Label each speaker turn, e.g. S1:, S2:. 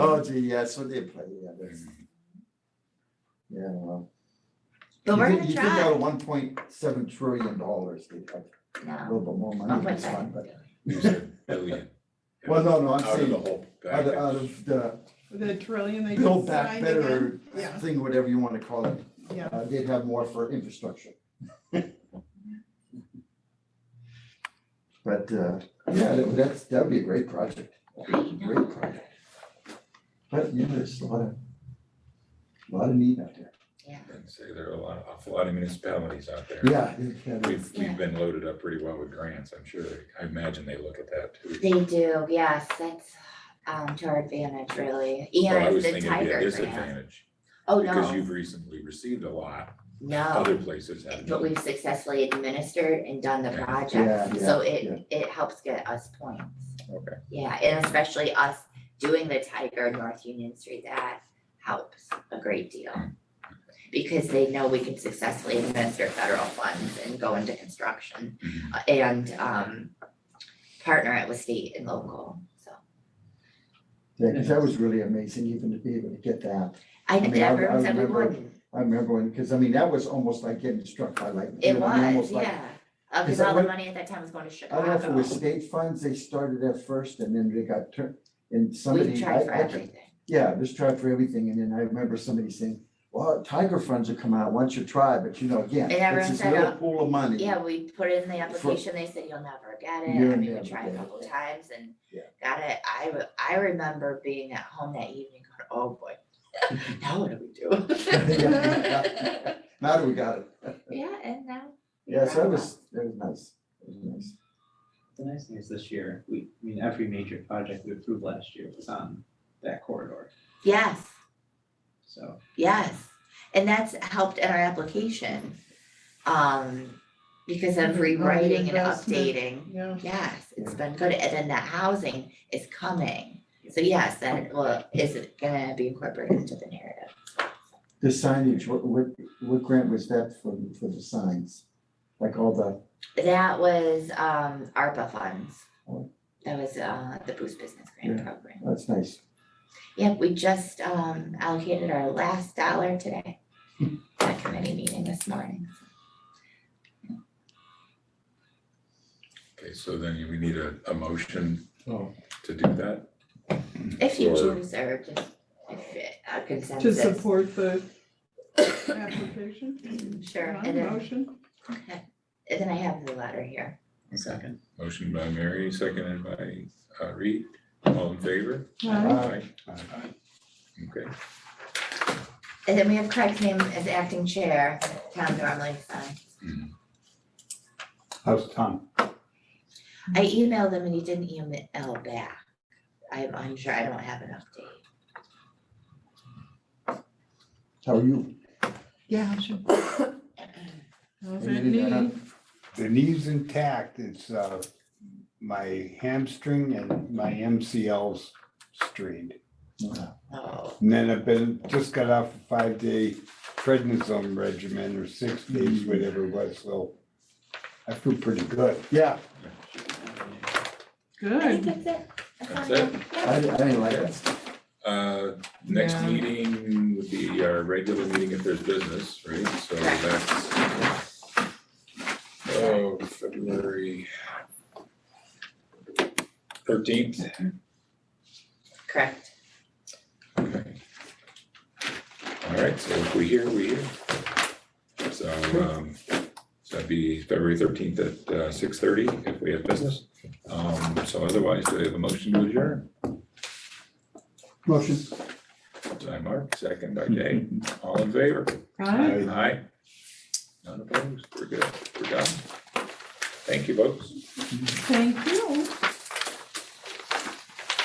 S1: technology, Oh, yeah, that's what they play, yeah, that's. Yeah, well.
S2: But
S1: You
S2: we're
S1: take-
S2: gonna
S1: You take out
S2: try,
S1: one point seven trillion dollars, they have a
S2: no,
S1: little bit more money
S2: one
S1: in
S2: point
S1: this one,
S2: seven.
S1: but,
S3: Use it, billion.
S1: well, no, no, I'm
S3: Out of the
S1: saying,
S3: whole.
S1: out of,
S3: package.
S1: out of the
S4: The trillion they
S1: Build
S4: just
S1: Back
S4: signed
S1: Better
S4: again. Yeah,
S1: thing, whatever you wanna call it,
S4: yeah.
S1: uh, they'd have more for infrastructure. But, uh, yeah, that- that's, that'd be a great project, great project. But, you know, there's a lot of, a lot of need out there.
S3: I'd Say there are a lot, awful lot of municipalities out there.
S1: Yeah, yeah, yeah.
S3: We've,
S2: Yeah.
S3: we've been loaded up pretty well with grants, I'm sure. I imagine they look at that too.
S2: They do, yes, that's um to our advantage really,
S3: Well, I
S2: and
S3: was
S2: the
S3: thinking it'd
S2: tiger
S3: be a
S2: grant.
S3: disadvantage
S2: Oh,
S3: Because
S2: no,
S3: you've recently received a lot,
S2: no,
S3: other places have.
S2: Oh. but we've successfully administered and done the
S3: Yeah.
S2: project,
S1: Yeah,
S2: so
S1: yeah,
S2: it it helps get us points.
S3: Okay.
S2: Yeah, and especially us doing the Tiger North Union Street, that helps a great deal. Because they know we can successfully administer federal funds and go into construction
S3: Mhm.
S2: uh, and um partner it with state and local, so.
S1: Yeah, 'cause that was really amazing even to be able to get that.
S2: I
S1: mean, I-
S2: everyone
S1: I
S2: said we
S1: remember-
S2: wouldn't,
S1: I remember when, because I mean, that was almost like getting struck by lightning.
S2: it
S1: you know, I mean, almost
S2: was,
S1: like-
S2: yeah, uh, cause
S1: Is that
S2: all the
S1: what-
S2: money at that time was going to
S1: I don't know if it
S2: Chicago,
S1: was state funds, they started at first and then they got turned, and
S2: we
S1: somebody,
S2: tried for
S1: I, I
S2: everything,
S1: Yeah, just try for everything, and then I remember somebody saying, well, tiger funds will come out once you try, but you know, again,
S2: And everyone
S1: it's this
S2: said,
S1: little
S2: "Oh,
S1: pool of money.
S2: yeah, we put in the
S1: For-
S2: application, they said you'll never get it,
S1: You'll
S2: I mean,
S1: never
S2: we tried
S1: get
S2: a
S1: it.
S2: couple times and
S1: Yeah.
S2: got it, I re- I remember being at home that evening, going, oh boy. Now what do we do?
S1: Now that we got it,
S2: Yeah, and now. we
S1: yeah, so
S2: got
S1: that
S2: it.
S1: was, that was nice, that was nice.
S5: The nice thing is this year, we, I mean, every major project we approved last year was on that corridor,
S2: Yes,
S5: so.
S2: yes, and that's helped in our application, um, because of
S4: Right,
S2: rewriting and
S4: investment.
S2: updating.
S4: Yeah,
S2: Yes, it's been good, and then that housing is coming, so yes, that will, is it gonna be incorporated into the narrative?
S1: The signage, what, what, what grant was that for, for the signs? Like all the,
S2: That was um ARPA funds.
S1: Oh.
S2: That was uh the Boost Business Grant
S1: Yeah.
S2: Program.
S1: that's nice,
S2: Yep, we just um allocated our last dollar today. That committee meeting this morning.
S3: Okay, so then you- we need a, a motion
S1: Oh.
S3: to do that?
S2: If you
S3: Or-
S2: choose or just if it- a
S4: to
S2: consensus,
S4: support the application.
S2: sure,
S4: Yeah,
S2: and then
S4: Motion,
S2: and then I have the letter here.
S5: Second.
S3: Motion by Mary, seconded by uh, Reed, all in favor?
S4: Aye.
S3: Aye. Okay.
S2: And then we have Craig's name as acting chair, Tom normally signs.
S6: How's Tom?
S2: I
S4: Mm-hmm.
S2: emailed him and he didn't email back. I'm unsure, I don't have an update.
S1: how are you?
S4: yeah, sure. How's that
S1: Maybe that-
S4: knee?
S6: The knee's intact. It's uh, my hamstring and my MCL's strained.
S1: Uh,
S2: Oh,
S6: And then I've been, just got off a five-day prednisone regimen or six days, whatever it was, so I feel pretty good.
S1: Yeah,
S2: I think
S4: Good,
S2: that's it.
S3: That's
S2: all I have.
S3: it.
S2: Yeah.
S1: I, I didn't like that,
S3: Uh, next
S4: Yeah.
S3: meeting would be our regular meeting if there's business, right? So
S2: Correct.
S3: that's. Oh, February. Thirteenth.
S2: Correct.
S3: All right, so if we hear, we hear. So, um, so that'd be February thirteenth at, uh, six thirty if we have business. Um, so otherwise, do we have a motion to adjourn?
S6: Motion.
S3: By Mark, second by Jay, all in favor?
S4: Aye.
S3: Aye. None opposed, we're good, we're done. Thank you, folks.
S4: thank you.